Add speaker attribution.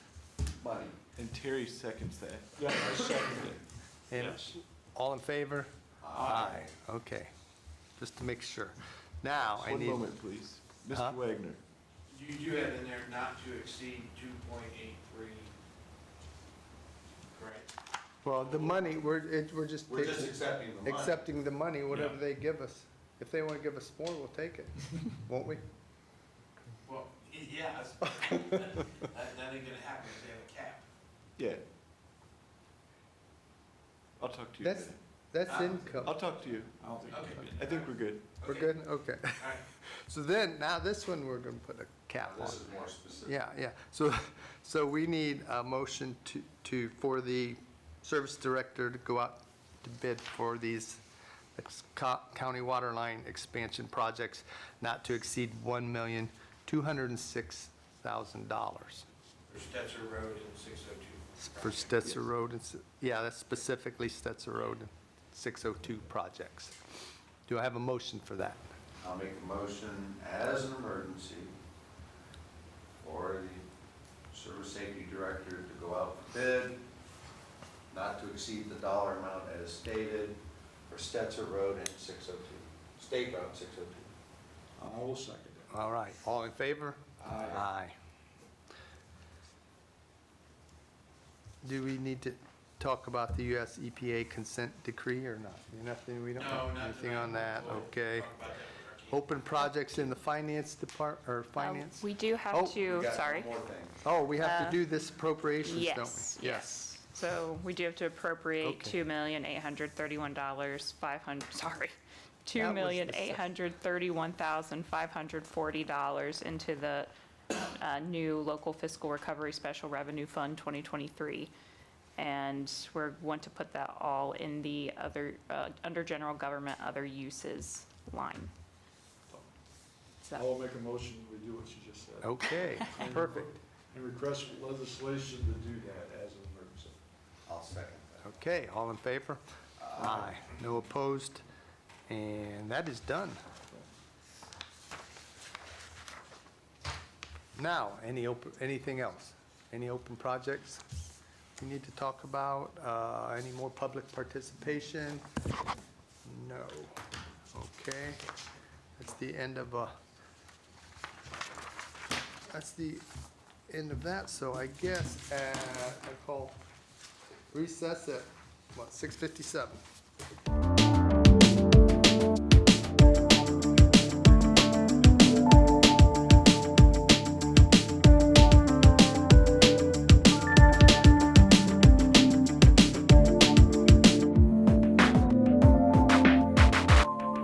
Speaker 1: body.
Speaker 2: And Terry seconds that.
Speaker 3: Yeah, I second it.
Speaker 4: And
Speaker 3: Yes.
Speaker 4: All in favor? Aye. Okay, just to make sure. Now, Oh, I
Speaker 2: One
Speaker 4: need...
Speaker 2: moment, please.
Speaker 4: Huh?
Speaker 2: Mr. Wagner.
Speaker 5: You, you have in there not to exceed two point eight three, correct?
Speaker 4: Well, the money, we're, it, we're just...
Speaker 1: We're just
Speaker 4: taking-
Speaker 1: accepting the money.
Speaker 4: accepting the money, whatever
Speaker 3: Yeah.
Speaker 4: they give us. If they want to give us more, we'll take it, won't we?
Speaker 5: Well, y- yeah, that's- that, that ain't gonna happen if they have a cap.
Speaker 2: Yeah. I'll talk to you.
Speaker 4: That's,
Speaker 2: later.
Speaker 4: that's
Speaker 5: Uh,
Speaker 2: I'll
Speaker 4: income.
Speaker 2: talk to you.
Speaker 3: I don't think.
Speaker 5: Okay.
Speaker 2: I think we're good.
Speaker 4: We're good? Okay.
Speaker 5: All right,
Speaker 4: So then, now this one, we're going to put a cap on.
Speaker 1: This is more specific.
Speaker 4: Yeah, yeah. So, so we need a motion to, to, for the service director to go out to bid for these ex- co- county water line expansion projects not to exceed $1,206,000.
Speaker 5: for Stetser Road and six oh two.
Speaker 4: For Stetser Road, and s- yeah, that's specifically Stetser Road and 602 projects. Do I have a motion for that?
Speaker 1: I'll make a motion as an emergency for the service safety director to go out for bid, not to exceed the dollar amount as stated for Stetzer Road and 602, State oh Route 602.
Speaker 3: I will second it.
Speaker 4: All right, all in favor?
Speaker 1: Aye.
Speaker 4: Aye. Do we need to talk about the US EPA consent decree or not? Nothing, we don't
Speaker 5: No,
Speaker 4: have
Speaker 5: not
Speaker 4: anything
Speaker 5: tonight.
Speaker 4: on that,
Speaker 5: We'll
Speaker 4: okay.
Speaker 5: talk about that with our team.
Speaker 4: Open projects in the finance depart, or
Speaker 6: Uh,
Speaker 4: finance?
Speaker 6: We do
Speaker 4: Oh,
Speaker 6: have
Speaker 1: We
Speaker 6: to,
Speaker 1: got
Speaker 6: sorry.
Speaker 1: one more thing.
Speaker 4: Oh, we have to
Speaker 6: uh,
Speaker 4: do this appropriations, don't we?
Speaker 6: Yes, yes. So we do have to appropriate
Speaker 4: Okay.
Speaker 6: two million eight hundred thirty-one dollars, five hundred, sorry,
Speaker 4: That
Speaker 6: two
Speaker 4: was the
Speaker 6: million
Speaker 4: second.
Speaker 6: eight hundred thirty-one thousand, five hundred forty dollars into the uh, new local fiscal recovery special revenue fund 2023. And we're, want to put that all in the other, uh, under general government, other uses line. So-
Speaker 3: I will make a motion, we do what you just said.
Speaker 4: Okay,
Speaker 3: And-
Speaker 4: perfect.
Speaker 3: And request legislation to do that as an emergency.
Speaker 1: I'll second that.
Speaker 4: Okay, all in favor? Aye. No opposed? And that is done. Now, any open, anything else? Any open projects we need to talk about? Uh, Any more public participation? No. Okay. That's the end of, uh, that's the end of that, so I guess, uh, I call recess at, what, 6:57?